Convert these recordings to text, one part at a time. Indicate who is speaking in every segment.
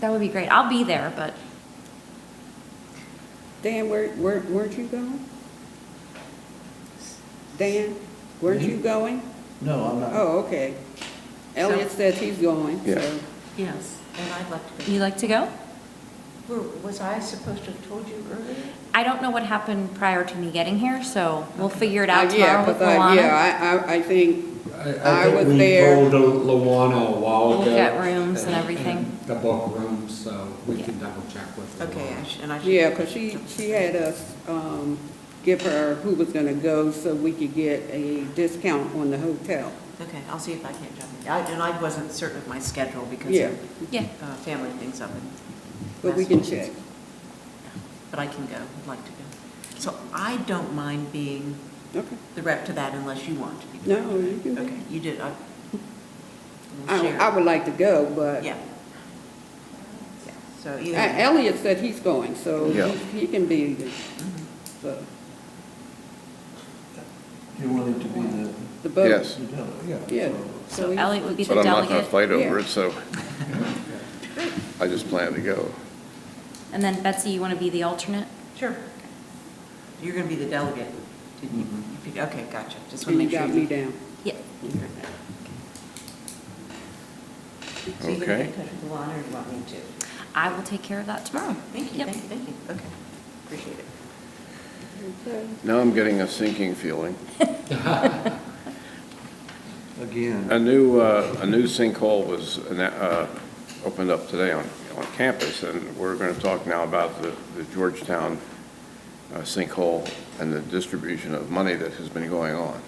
Speaker 1: That would be great. I'll be there, but
Speaker 2: Dan, where, where, weren't you going? Dan, weren't
Speaker 3: Mm-hmm.
Speaker 2: you going?
Speaker 4: No, I'm not.
Speaker 2: Oh, okay. Elliot says he's going,
Speaker 3: Yeah.
Speaker 2: so.
Speaker 5: Yes, and I'd like to
Speaker 1: you like to go?
Speaker 5: go. Were- Was I supposed to have told you earlier?
Speaker 1: I don't know what happened prior to me getting here, so we'll figure it out
Speaker 2: Uh, yeah,
Speaker 1: tomorrow with
Speaker 2: 'cause I-
Speaker 1: Luana.
Speaker 2: Yeah, I, I, I think, I
Speaker 6: think
Speaker 2: was
Speaker 6: we
Speaker 2: there.
Speaker 6: told Luana a while ago.
Speaker 1: Look at rooms and everything.
Speaker 6: The book rooms, so we can double check with Luana.
Speaker 5: Okay, I should- and I should.
Speaker 2: yeah, because she, she had us, um, give her who was gonna go so we could get a discount on the hotel.
Speaker 5: Okay, I'll see if I can't jump in. I- And I wasn't certain of my schedule because
Speaker 2: Yeah,
Speaker 5: of
Speaker 1: Yeah,
Speaker 5: uh, family things up in
Speaker 2: but we can check.
Speaker 5: Massachusetts. But I can go, I'd like to go. So I don't mind being
Speaker 2: Okay.
Speaker 5: the rep to that unless you want to be. the
Speaker 2: No,
Speaker 5: rep.
Speaker 2: you can.
Speaker 5: Okay, you did, I. we'll
Speaker 2: I,
Speaker 5: share.
Speaker 2: I would like to go, but
Speaker 5: Yeah. Yeah, So
Speaker 2: Uh,
Speaker 5: either.
Speaker 2: Elliot said he's going, so
Speaker 3: Yeah.
Speaker 2: he he can be, the-
Speaker 1: Mm-hmm.
Speaker 2: so,
Speaker 4: You wanted to be the,
Speaker 2: the boat.
Speaker 3: Yes.
Speaker 4: the delegate.
Speaker 2: Yeah.
Speaker 1: so
Speaker 2: he-
Speaker 1: Elliot would be the
Speaker 3: But I'm not going to
Speaker 1: delegate,
Speaker 3: fight over
Speaker 2: Yeah.
Speaker 3: it, so I just plan to go.
Speaker 1: and then Betsy, you want to be the alternate?
Speaker 5: Sure. You're going to be the delegate. Did you- you pick- Okay, gotcha.
Speaker 2: And
Speaker 5: Just want to
Speaker 2: you
Speaker 5: make sure.
Speaker 2: Mm-hmm. got me down.
Speaker 1: Yeah,
Speaker 5: So you're going to
Speaker 3: Okay.
Speaker 5: get in touch with Luana or do you want me to?
Speaker 1: I will take care of that tomorrow.
Speaker 5: Thank you,
Speaker 1: Yep.
Speaker 5: thank you, thank you. Okay, appreciate it.
Speaker 3: Now I'm getting a sinking feeling.
Speaker 4: Again,
Speaker 3: A new, uh, a new sinkhole was ana- uh, opened up today on, on campus, and we're going to talk now about the the Georgetown uh, sinkhole and the distribution of money that has been going on.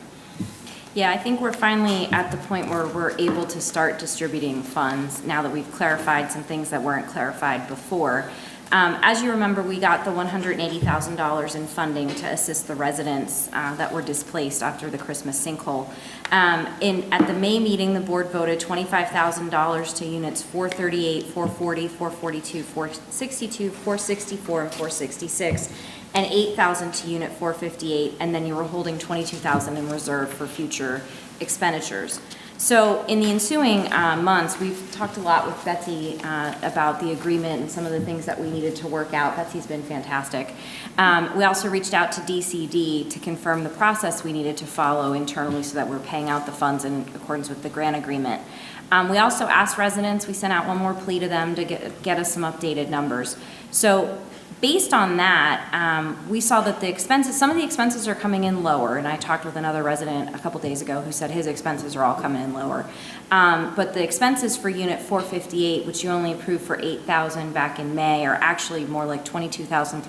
Speaker 1: Yeah, I think we're finally at the point where we're able to start distributing funds now that we've clarified some things that weren't clarified before. Um, As you remember, we got the $180,000 in funding to assist the residents uh, that were displaced after the Christmas sinkhole. Um, In, at the May meeting, the board voted $25,000 to units 438, 440, 442, 462, 464, and 466 and 8,000 to unit 458, and then you were holding 22,000 in reserve for future expenditures. So in the ensuing uh, months, we've talked a lot with Betsy uh, about the agreement and some of the things that we needed to work out. Betsy's been fantastic. Um, We also reached out to DCD to confirm the process we needed to follow internally so that we're paying out the funds in accordance with the grant agreement. Um, We also asked residents, we sent out one more plea to them to get get us some updated numbers. So Based on that, um, we saw that the expenses, some of the expenses are coming in lower, and I talked with another resident a couple days ago who said his expenses are all coming in lower. Um, But the expenses for Unit 458, which you only approved for 8,000 back in May, are actually more like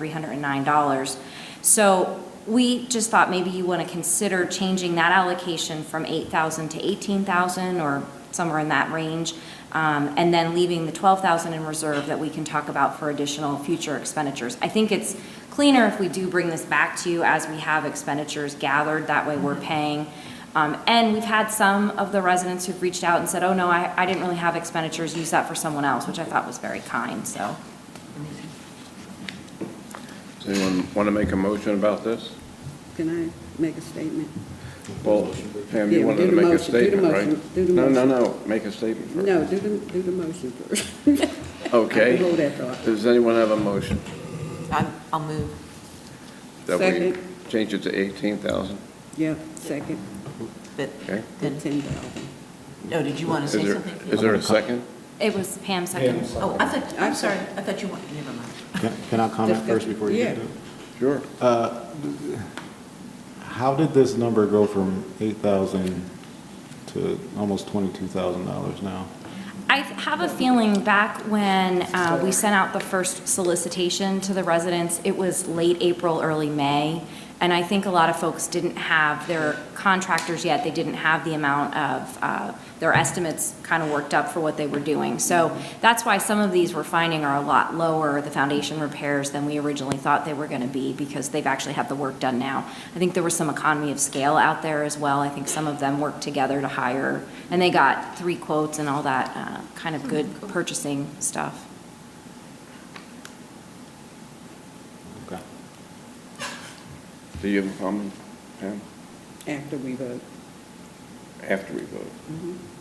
Speaker 1: $22,309. So we just thought maybe you want to consider changing that allocation from 8,000 to 18,000 or somewhere in that range, um, and then leaving the 12,000 in reserve that we can talk about for additional future expenditures. I think it's cleaner if we do bring this back to you as we have expenditures gathered, that way we're paying. Um, And we've had some of the residents who've reached out and said, oh, no, I I didn't really have expenditures, use that for someone else, which I thought was very kind, so.
Speaker 3: Does anyone want to make a motion about this?
Speaker 2: Can I make a statement?
Speaker 3: Well, Pam, you
Speaker 2: Yeah,
Speaker 3: wanted
Speaker 2: do the
Speaker 3: to make a
Speaker 2: motion, do the
Speaker 3: statement, right?
Speaker 2: motion, do the
Speaker 3: No,
Speaker 2: motion.
Speaker 3: no, no, make a statement first.
Speaker 2: No, do the, do the motion first. I
Speaker 3: Okay.
Speaker 2: can hold that thought.
Speaker 3: Does anyone have a motion?
Speaker 5: I'm- I'll move.
Speaker 3: that we
Speaker 2: Second.
Speaker 3: Change it to 18,000?
Speaker 2: Yeah, second,
Speaker 5: But
Speaker 3: Okay.
Speaker 2: then
Speaker 5: then,
Speaker 2: ten thousand.
Speaker 5: no, did you want to
Speaker 3: Is
Speaker 5: say
Speaker 3: there,
Speaker 5: something?
Speaker 3: is there a second?
Speaker 1: It was Pam
Speaker 6: Pam
Speaker 1: second.
Speaker 6: seconded.
Speaker 5: Oh, I thought, I'm
Speaker 2: I'm
Speaker 5: sorry,
Speaker 2: sorry.
Speaker 5: I thought you wanted, never mind.
Speaker 7: Can can I comment first before you
Speaker 2: Yeah.
Speaker 7: do?
Speaker 3: Sure.
Speaker 7: How did this number go from 8,000 to almost $22,000 now?
Speaker 1: I have a feeling back when uh, we sent out the first solicitation to the residents, it was late April, early May, and I think a lot of folks didn't have their contractors yet, they didn't have the amount of, uh, their estimates kind of worked up for what they were doing. So that's why some of these we're finding are a lot lower, the foundation repairs, than we originally thought they were going to be, because they've actually had the work done now. I think there was some economy of scale out there as well. I think some of them worked together to hire, and they got three quotes and all that uh, kind of good purchasing stuff.
Speaker 7: Okay.
Speaker 3: Do you have a comment, Pam,
Speaker 2: after we vote.
Speaker 3: after we vote?